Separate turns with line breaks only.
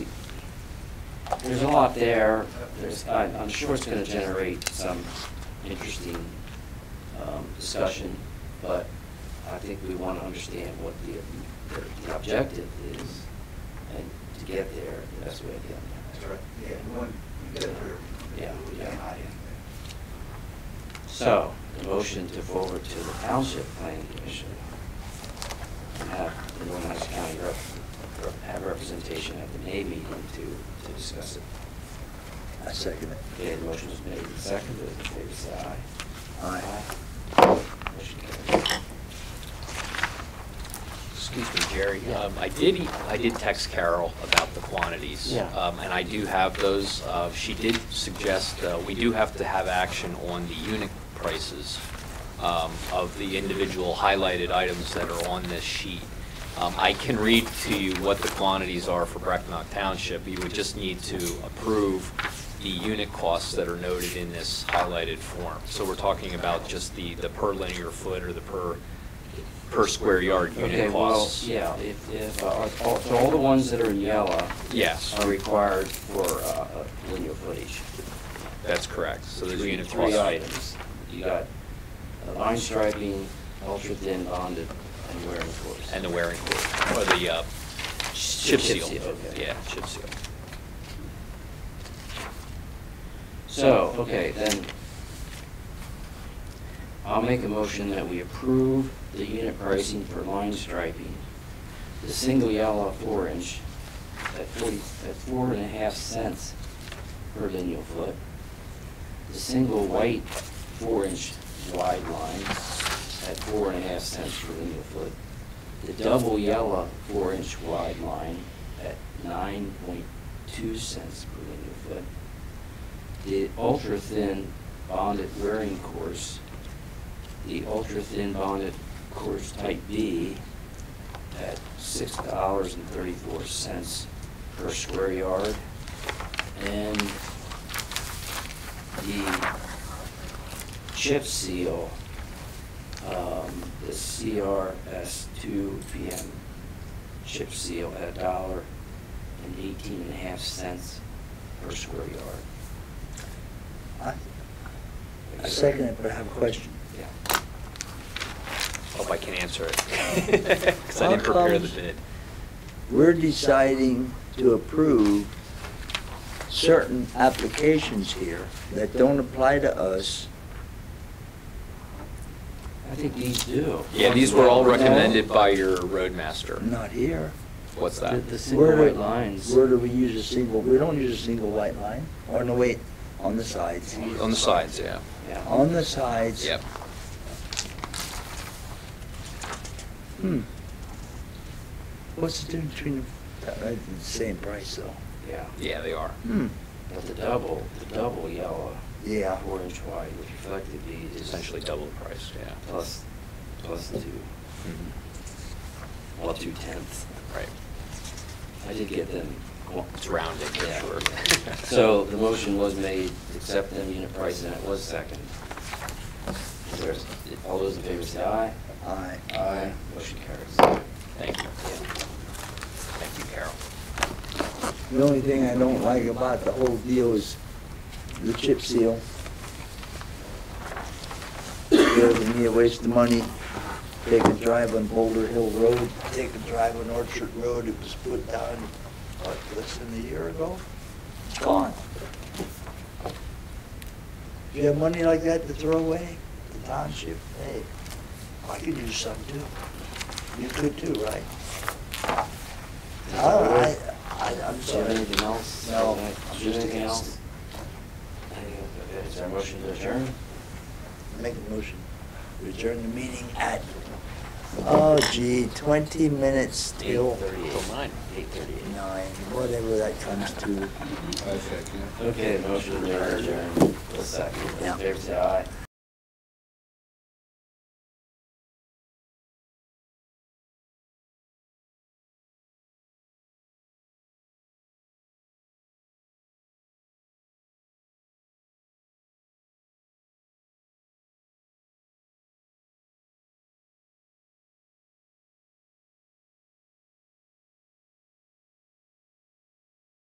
there's a lot there. There's, I- I'm sure it's gonna generate some interesting um, discussion, but I think we wanna understand what the, the- the objective is, and to get there, the best way to get
That's
there.
right. Yeah, we want, we get it clear.
Yeah, we got an idea. So, the motion to forward to the Township Planning Commission, and have the Northern Hudson County rep, rep- have representation at the May meeting to, to discuss it.
I second it.
Okay, the motion is made and seconded, Those in favor say aye.
Aye.
Motion carries.
Excuse me, Jerry. Um, I did, e- I did text Carol about the quantities.
Yeah.
Um, And I do have those. Uh, She did suggest, uh, we do have to have action on the unit prices um, of the individual highlighted items that are on this sheet. Um, I can read to you what the quantities are for Brecknock Township. You would just need to approve the unit costs that are noted in this highlighted form. So we're talking about just the, the per linear foot or the per, per square yard
Okay,
unit
well,
costs.
yeah, if, if, uh, are- all- so all the ones that are in yellow
Yes,
are required for, uh, uh, linear footage.
that's correct. So there's
Three-
unit
Three
costs.
items. You got uh, line striping, ultra-thin bonded, and wear and force.
And the wearing cord, or the uh, chip seal.
okay.
Yeah, chip seal.
So, okay, then, I'll make a motion that we approve the unit pricing for line striping, the single yellow four inch at forty, at four and a half cents per lineal foot, the single white four inch wide line at four and a half cents per lineal foot, the double yellow four inch wide line at nine point two cents per lineal foot, the ultra-thin bonded wearing course, the ultra-thin bonded course type B at six dollars and thirty-four cents per square yard, and the chip seal, um, the CRS two PM chip seal at a dollar and eighteen and a half cents per square yard.
I I second it, but I have a question.
Yeah.
Hope I can answer it. Because I didn't
How
prepare the
comes-
bid.
We're deciding to approve certain applications here that don't apply to us.
I think these do.
Yeah, these were all
No.
recommended by your roadmaster.
Not here.
What's
The,
that?
the single
Where do-
white lines.
Where do we use a single, we don't use a single white line, or no, wait, on the sides.
On the sides, yeah.
Yeah.
On the sides.
Yep.
Hmm. What's the difference between, the uh, the same price though?
Yeah.
Yeah, they are.
Hmm.
But the double, the double yellow,
Yeah.
four inch wide, which reflected bead is
Essentially double the price, yeah.
plus, plus two,
Mhm.
well, two tenths.
Right.
I did get them. Well,
It's rounding, for
Yeah.
sure.
So the motion was made, to accept them unit price, and it was second. Is there- All those in favor say aye.
Aye.
Aye. Motion carries.
Thank you.
Yeah.
Thank you, Carol.
The only thing I don't like about the whole deal is the chip seal. It was me a waste of money. Take a drive on Boulder Hill Road, take a drive on Orchard Road. It was put down, what, less than a year ago? It's gone. If you have money like that to throw away, the township, hey, I could use some too. You could too, right? I, I, I-
Do
I'm
you have
sorry.
anything else?
No,
Do you
I'm
have
just
anything
against
else? Anything- okay, Is there a motion to adjourn?
Make a motion, adjourn the meeting at, oh gee, twenty minutes till
Till nine.
Eight thirty-eight.
nine, whatever that comes to.
I second.
Okay, motion to adjourn, a second. All in
Yeah.
favor, say aye.